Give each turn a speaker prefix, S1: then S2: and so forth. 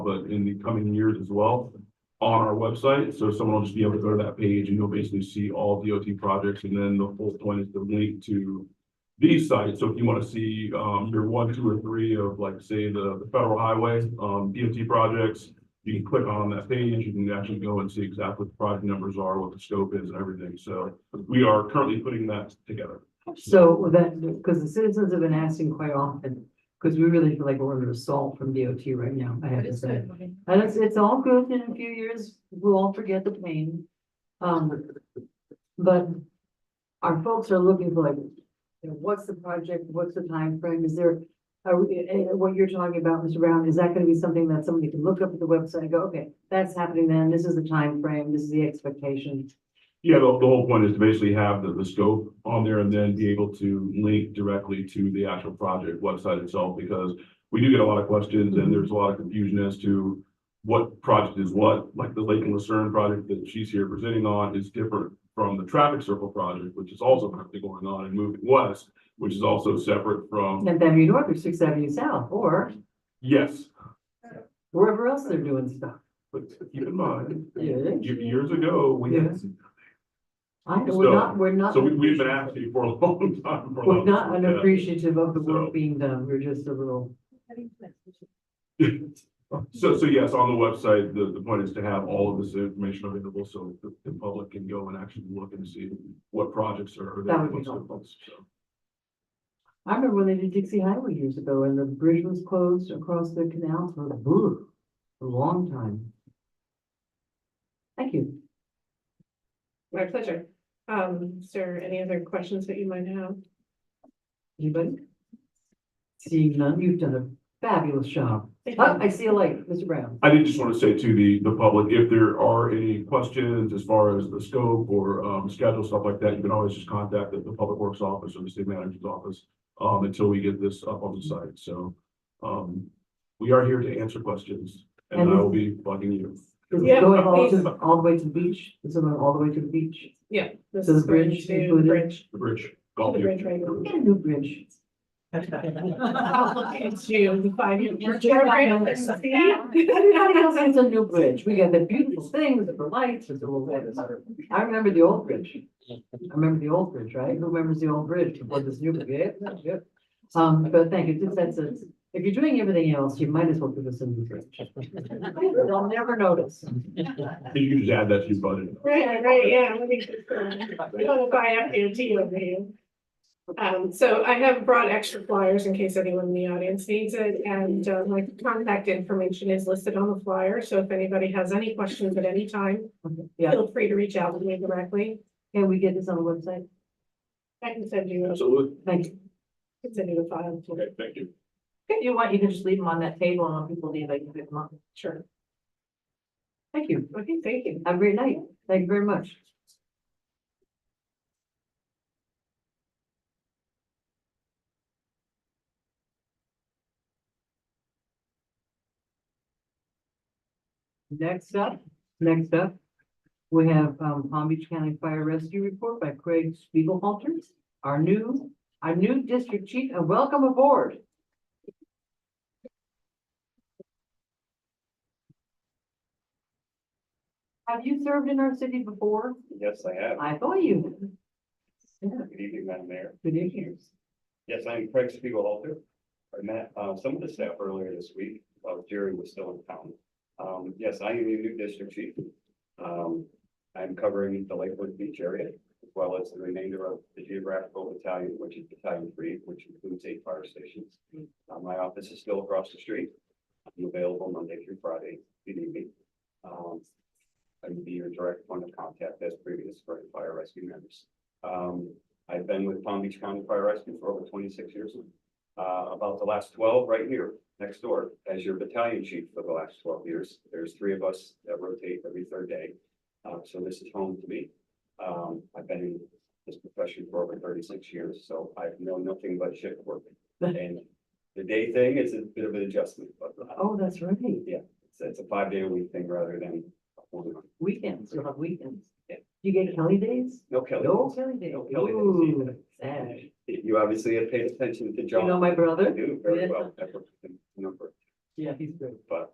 S1: but in the coming years as well on our website. So someone will just be able to go to that page and you'll basically see all DOT projects. And then the whole point is to link to these sites. So if you want to see um your one, two, or three of like, say, the the federal highway um DOT projects, you can click on that page. You can actually go and see exactly what the project numbers are, what the scope is and everything. So we are currently putting that together.
S2: So that, because the citizens have been asking quite often, because we really feel like we're under assault from DOT right now, I have
S3: But
S2: to
S3: it's
S2: say.
S3: good. looking.
S2: And it's, it's all good, in a few years, we'll all forget the pain. Um, but our folks are looking for like, you know, what's the project, what's the time frame? is there? Are, we- eh, eh, what you're talking about, Mr. Brown, is that gonna be something that somebody can look up at the website and go, okay, that's happening then, this is the time frame. this is the expectation.
S1: Yeah, the, the whole point is to basically have the, the scope on there and then be able to link directly to the actual project website itself, because we do get a lot of questions
S2: Mm-hmm.
S1: and there's a lot of confusion as to what project is what, like the Lake and Lucerne project that she's here presenting on is different from the traffic circle project, which is also currently going on and moving west, which is also separate from,
S2: Tenth Avenue North or Sixth Avenue South, or
S1: yes,
S2: wherever else they're doing stuff.
S1: but keep in mind,
S2: Yeah.
S1: ye- years ago, we had,
S2: I, we're not, we're not.
S1: so we, we've been asking for a long time. for a
S2: We're
S1: long
S2: not
S1: time.
S2: unappreciative of the
S1: So-
S2: work being done, we're just a little,
S1: So, so yes, on the website, the, the point is to have all of this information available so the, the public can go and actually look and see what projects are.
S2: That would be helpful. I remember when they did Dixie Highway years ago and the bridge was closed across the canal for ugh, a long time. Thank you.
S3: My pleasure. Um, is there any other questions that you might have?
S2: Anybody? Seeing none, you've done a fabulous job. Oh, I see a light, Mr. Brown.
S1: I did just want to say to the, the public, if there are any questions as far as the scope or, um, schedule, stuff like that, you can always just contact the, the Public Works Office or the City Manager's Office, um, until we get this up on the site. So, um, we are here to answer questions and I will be bugging you.
S2: Is
S3: Yeah,
S2: it going all
S3: please.
S2: to, all the way to the beach? Is it going all the way to the beach?
S3: Yeah. This
S2: Does
S3: is going
S2: bridge
S3: to
S2: include it?
S3: Bridge.
S1: The bridge. golf
S3: To the
S1: you.
S3: bridge, right.
S2: We got a new bridge.
S3: Into the five-year bridge
S2: Yeah.
S3: program.
S2: Everybody else has a new bridge. We got the beautiful things with the lights with the little letters. I remember the old bridge. I remember the old bridge, right? Who remembers the old bridge before this new bridge? Yeah, yeah. Um, but thank you. Just that's it. If you're doing everything else, you might as well give us a new bridge. They'll never notice.
S1: You can just add that to your budget.
S3: Right, right, yeah. let me just, uh, We want to buy up your tea over here. Um, so I have brought extra flyers in case anyone in the audience needs it, and uh, my contact information is listed on the flyer, so if anybody has any questions at any time,
S2: Yeah,
S3: feel free to reach out to me directly.
S2: can we get this on the website?
S3: I can send you, I
S1: Absolutely.
S2: Thank you.
S3: can send you the file.
S1: Okay, thank you.
S2: You want, you can just leave them on that table and when people leave, I can pick them up.
S3: Sure.
S2: Thank you.
S3: Okay, thank you.
S2: Have a great night. Thank you very much. Next up, next up, we have um, Palm Beach County Fire Rescue Report by Craig Spiegelhalter, our new, our new district chief, and welcome aboard. Have you served in our city before?
S4: Yes, I have.
S2: I thought you. had.
S4: Good evening, Madam Mayor.
S2: Good evening.
S4: Yes, I'm Craig Spiegelhalter. I met uh, some of the staff earlier this week while Jerry was still in town. Um, Yes, I am your new district chief. Um, I'm covering the Lakewood Beach area as well as the remainder of the geographical battalion, which is Battalion Three, which includes eight fire stations. Uh, My office is still across the street. I'm available Monday through Friday, if you need me. Um, I can be your direct point of contact as previous for fire rescue members. Um, I've been with Palm Beach County Fire Rescue for over twenty-six years. Uh, about the last twelve right here, next door, as your battalion chief for the last twelve years. There's three of us that rotate every third day. Uh, so this is home to me. Um, I've been in this profession for over thirty-six years, so I've known nothing but shift work. And the day thing is a bit of an adjustment, but uh,
S2: Oh, that's right.
S4: it's, it's a five-day a week thing rather than a one-month.
S2: Weekends, you'll have weekends.
S4: Yeah.
S2: You get Kelly days?
S4: No, Kelly.
S2: No Kelly days.
S4: No Kelly days either.
S2: Ooh, sad.
S4: You obviously have paid attention to
S2: You know
S4: John.
S2: my
S4: I
S2: brother?
S4: do very well. That was the number.
S2: Yeah, he's great.
S4: But